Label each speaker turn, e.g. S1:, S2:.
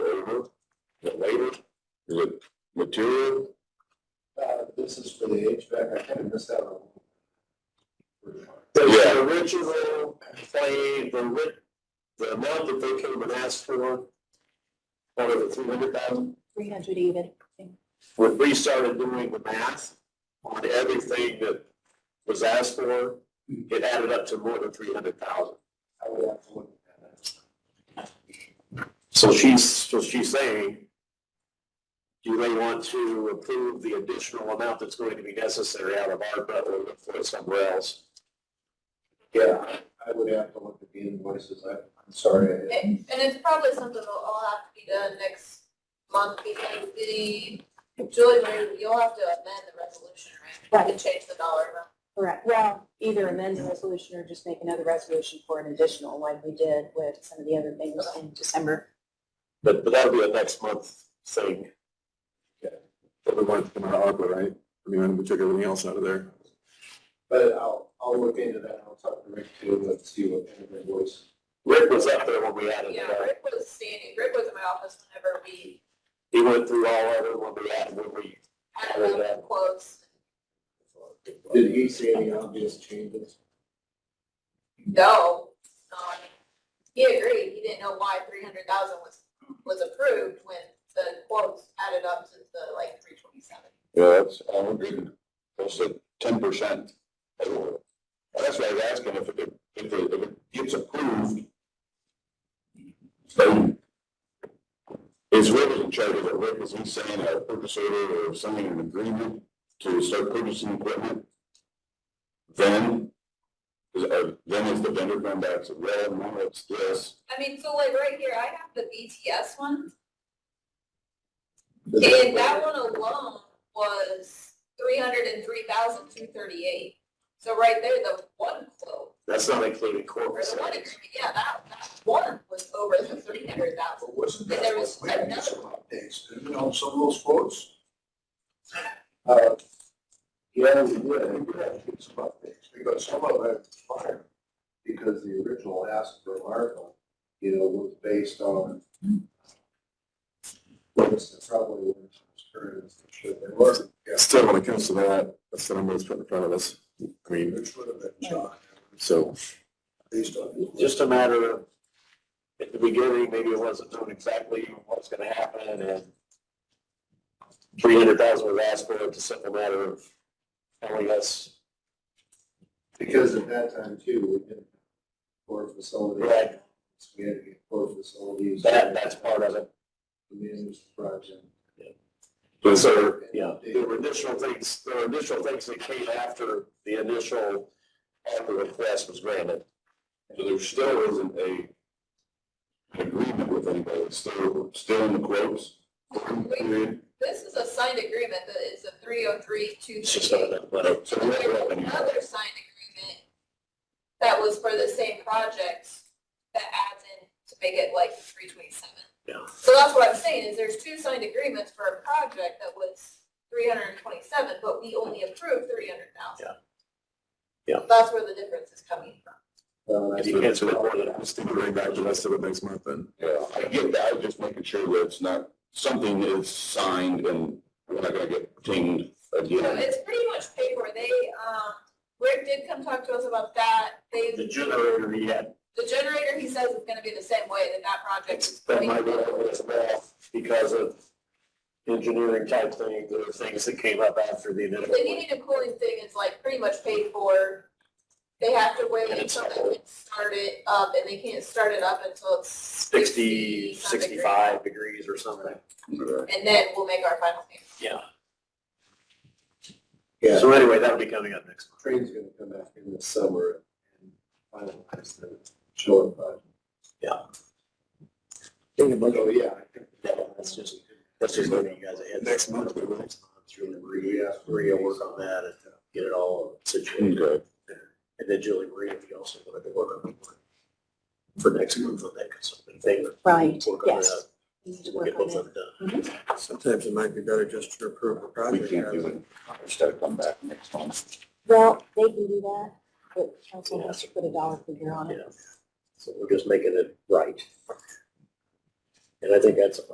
S1: labor? The labor, is it material?
S2: Uh, this is for the HVAC, I kind of missed out on.
S1: The original plan, the ri- the amount that they came and asked for, out of the three hundred thousand,
S3: three hundred even.
S1: when we started doing the math on everything that was asked for, it added up to more than three hundred thousand.
S2: I would
S3: Oh,
S2: have to look at that.
S1: So she's, so she's saying, do they want to approve the additional amount that's going to be necessary out of ARPA or look for it somewhere else?
S2: Yeah, I would have to look at the invoices, I, I'm sorry. I-
S4: And and it's probably something that'll all have to be done next month because the, Julie, Marie, you'll have to amend the resolution, right? To
S3: Right.
S4: change the dollar amount.
S3: Correct. Well, either amend the resolution or just make another resolution for an additional, like we did with some of the other things in December.
S1: But, but that'll be a next month thing.
S5: But we wanted to come out of ARPA, right? I mean, we took everything else out of there.
S2: But I'll, I'll look into that, and I'll talk to Rick too, and see what kind of invoice.
S1: Rick was up there when we added it
S4: Yeah,
S1: up.
S4: Rick was standing, Rick was in my office whenever we
S1: He went through all of it when we added, when we,
S4: added up the quotes.
S2: Did he see any obvious changes?
S4: No, um, he agreed, he didn't know why three hundred thousand was, was approved when the quotes added up to the like three twenty-seven.
S1: Yeah, that's, I agree. That's like ten percent. That's why I was asking if it, if it, if it gets approved. So. Is Rick in charge of it? Rick, is he saying a purchase order or signing an agreement to start purchasing equipment? Then, is, uh, then is the vendor going back to, well, no, it's this.
S4: I mean, so like right here, I have the BTS one,
S2: Did
S4: And that one alone was three hundred and three thousand two thirty-eight. So right there, the one quote,
S1: That's not including
S4: or
S1: corporate
S4: the one agreement, yeah, that, that one was over the three hundred thousand.
S6: But wasn't
S4: And
S6: that
S4: there was
S6: what we had
S4: another-
S6: some updates, didn't we, on some of those quotes?
S2: Uh,
S6: Yeah, we did, I think we had to get some updates, because some of it expired.
S2: because the original ask for Marco, you know, was based on what was probably what was current, as it should they were,
S5: Still, when it comes to that, that's the number that's put in front of us. I mean,
S6: Which would have been John,
S5: so
S6: based on.
S1: just a matter of, at the beginning, maybe it wasn't known exactly what's gonna happen and three hundred thousand was asked for, it's a simple matter of telling us,
S2: because at that time too, we didn't core facilities.
S1: Right.
S2: We had to get core facilities.
S1: that, that's part of it.
S2: The management project.
S1: And so, yeah, there were additional things, there were additional things that came after the initial offer request was granted.
S5: So there still isn't a an agreement with anybody, it's still, still in the quotes. period.
S4: This is a signed agreement that is a three oh three two
S1: It's just not
S4: thirty-eight.
S1: that, but- so
S4: There's
S1: we never have any-
S4: another signed agreement that was for the same project that adds in to make it like three twenty-seven.
S1: Yeah.
S4: So that's what I'm saying, is there's two signed agreements for a project that was three hundred and twenty-seven, but we only approved three hundred thousand.
S1: Yeah. Yeah.
S4: That's where the difference is coming from.
S2: Uh,
S1: You can't spend more than
S5: Just to bring back the rest of it next month then.
S7: Yeah, I get that, I'm just making sure that it's not, something is signed and we're not gonna get dinged
S4: So
S7: again.
S4: it's pretty much paper, they, um, Rick did come talk to us about that, they,
S1: The generator he had,
S4: the generator, he says is gonna be the same way that that project is.
S1: that might be what was off because of engineering type things, or things that came up after the initial.
S4: The heating and cooling thing is like pretty much paid for. They have to wait
S1: And it's
S4: until
S1: all-
S4: they can start it up, and they can't start it up until it's
S1: sixty,
S4: sixty. some degree.
S1: sixty-five degrees or something.
S4: And then we'll make our final payment.
S1: Yeah.
S2: Yeah.
S1: So anyway, that'll be coming up next month.
S2: Train's gonna come back in the summer and finalize the shore project.
S1: Yeah.
S2: So, yeah, I think.
S1: Yeah, that's just- That's just giving you guys a heads.
S5: Next month, we will.
S1: Next month, Julie Marie,
S2: Yeah.
S1: Maria will work on that and get it all situated.
S7: Okay,
S1: And then Julie Marie, if you also wanted to work on it for next month on that consulting thing.
S3: Right,
S1: Work on
S3: yes.
S1: that,
S3: We need to
S1: we'll
S3: work
S1: get
S3: on
S1: both
S3: that.
S1: of them done.
S6: Sometimes it might be better just to approve a
S7: we
S6: project.
S7: can't do it, it's gotta come back next month.
S3: Well, they can do that, but council has to put a dollar figure on it.
S1: Yeah. So we're just making it right. And I think that's